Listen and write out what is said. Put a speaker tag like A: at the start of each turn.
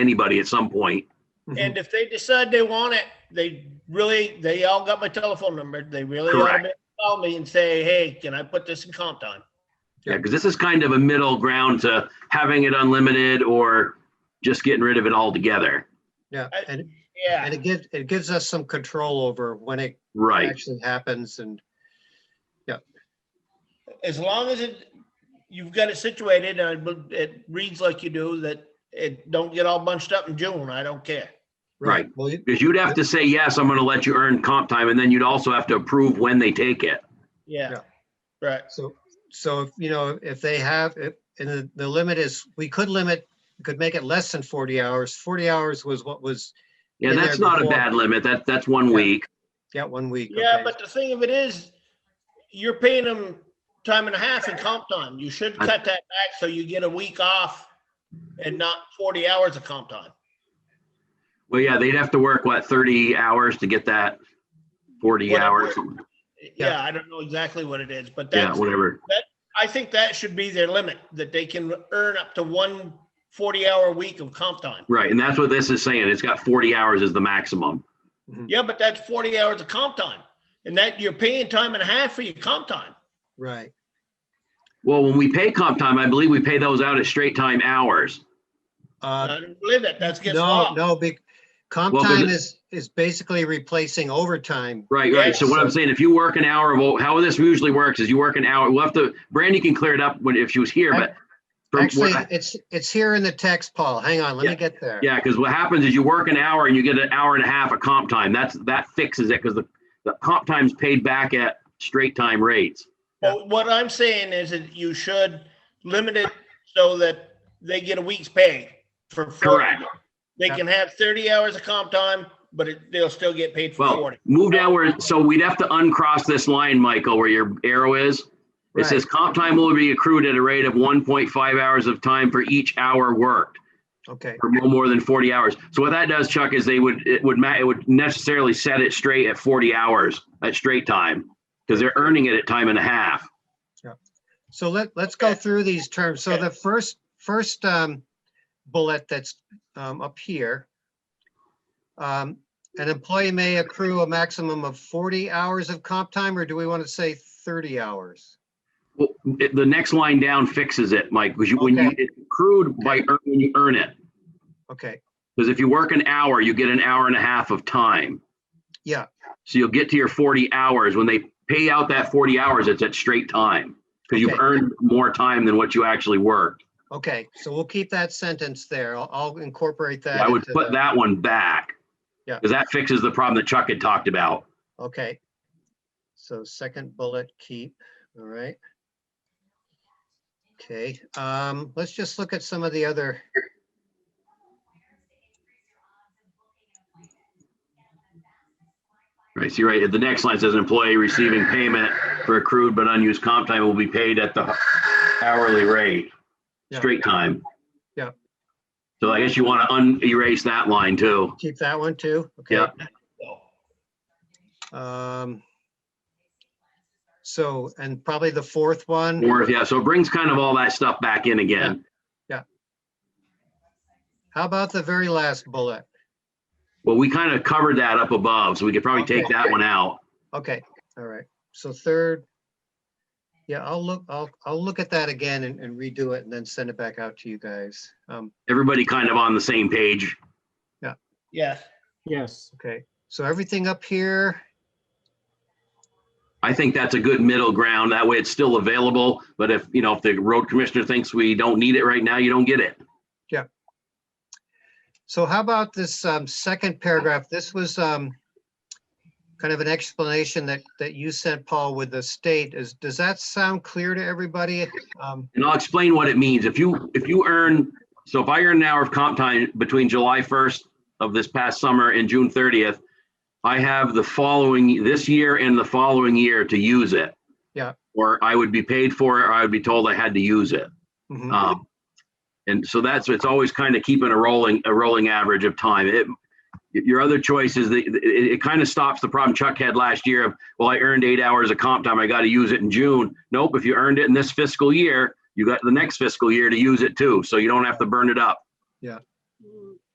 A: anybody at some point.
B: Mm-hmm.
C: And if they decide they want it, they really, they all got my telephone number. They really ought
A: Correct.
C: to call me and say, hey, can I put this in comp time?
A: Yeah, because this is kind of a middle ground to having it unlimited or just getting rid of it altogether.
B: Yeah,
C: I-
B: and, and
C: Yeah,
B: it gives, it gives us some control over when it
A: Right.
B: actually happens and,
C: as long as it, you've got it situated and it- it reads like you do, that it don't get all bunched up in June. I don't care.
B: right, well, you-
A: Because you'd have to say, yes, I'm going to let you earn comp time. And then you'd also have to approve when they take it.
C: Yeah,
B: Yeah.
C: right.
B: so, so, if you know, if they have, if- and the, the limit is, we could limit, we could make it less than 40 hours. 40 hours was what was,
A: Yeah,
B: Been there
A: that's not a
B: before.
A: bad limit. That, that's one
B: Yeah.
A: week.
B: yeah, one week.
C: Yeah,
B: okay.
C: but the thing of it is, you're paying them time and a half in comp time. You should
A: I-
C: cut that back so you get a week off and not forty hours of comp time.
A: Well, yeah, they'd have to work, what, 30 hours to get that 40
C: Whatever.
A: hours?
C: Yeah, I don't know exactly what it is, but
A: Yeah,
C: that's,
A: whatever.
C: I think that should be their limit, that they can earn up to one 40-hour week of comp time.
A: Right. And that's what this is saying. It's got 40 hours as the maximum.
C: Yeah, but that's 40 hours of comp time, and that you're paying time and a half for your comp time.
B: Right,
A: Well, when we pay comp time, I believe we pay those out as straight time hours.
B: uh,
C: I don't believe that, that's against
B: no,
C: law.
B: no, big, comp
A: Well, 'cause
B: time
A: it-
B: is, is basically replacing overtime.
A: Right, right. So what I'm saying, if you work an hour of, o- how this usually works is you work an hour, we'll have to, Brandy can clear it up when, if she was here, but. from
B: Actually,
A: what-
B: it's, it's here in the text, Paul. Hang on, let
A: Yeah,
B: me get there.
A: Yeah, because what happens is you work an hour and you get an hour and a half of comp time. That's, that fixes it because the, the comp time's paid back at straight time rates.
C: But what I'm saying is that you should limit it so that they get a week's pay for 40.
A: Correct.
C: They can have 30 hours of comp time, but it- they'll still get paid for
A: Well,
C: 40.
A: move down where, so we'd have to uncross this line, Michael, where your arrow is. It
B: Right.
A: says comp time will be accrued at a rate of 1.5 hours of time for each hour worked.
B: Okay,
A: for no more than 40 hours. So what that does, Chuck, is they would, it would, ma- it would necessarily set it straight at 40 hours at straight time because they're earning it at time and a half.
B: so let, let's go
C: Okay.
B: through these terms. So
C: Okay.
B: the first, first um, bullet that's um, up here. um, An employee may accrue a maximum of 40 hours of comp time, or do we want to say 30 hours?
A: Well, it- the next line down fixes it, Mike, because you, when you,
B: Okay.
A: it's accrued by, earn- when you earn it.
B: Okay,
A: Because if you work an hour, you get an hour and a half of time.
B: Yeah.
A: So you'll get to your 40 hours. When they pay out that 40 hours, it's at straight time. Because you've
B: Okay.
A: earned more time than what you actually worked.
B: okay, so we'll keep that sentence there. I'll- I'll incorporate that.
A: I would
B: into
A: put
B: the-
A: that one back.
B: Yeah.
A: Because that fixes the problem that Chuck had talked about.
B: Okay. So second bullet, keep, all right. Okay, um, let's just look at some of the other.
A: Right, so you're right, the next line says employee receiving payment for accrued but unused comp time will be paid at the hourly rate,
B: Yeah.
A: straight time.
B: Yeah.
A: So I guess you want to un-erase that line too.
B: Keep that one too? Okay.
A: Yeah.
C: So,
B: Um, So, and probably the fourth one,
A: Or, yeah, so it brings kind of all that stuff back in again.
B: how about the very last bullet?
A: Well, we kind of covered that up above, so we could probably take that one out.
B: Okay, all right, so third. Yeah, I'll look, I'll, I'll look at that again and and redo it and then send it back out to you guys. Um,
A: Everybody kind of on the same page.
C: Yes,
D: Yes,
B: Okay, so everything up here,
A: I think that's a good middle ground. That way it's still available, but if, you know, if the road commissioner thinks we don't need it right now, you don't get it.
B: So how about this um, second paragraph? This was um, kind of an explanation that, that you sent, Paul, with the state. Is, does that sound clear to everybody? Um,
A: And I'll explain what it means. If you, if you earn, so if I earn an hour of comp time between July 1st of this past summer and June 30th, I have the following, this year and the following year to use it.
B: Yeah.
A: Or I would be paid for it, or I would be told I had to use it.
B: mhm.
A: Um, and so that's, it's always kind of keeping a rolling, a rolling average of time. It, your other choice is that it, it kind of stops the problem Chuck had last year of, well, I earned eight hours of comp time. I got to use it in June. Nope. If you earned it in this fiscal year, you got the next fiscal year to use it too. So you don't have to burn it up.
B: Yeah.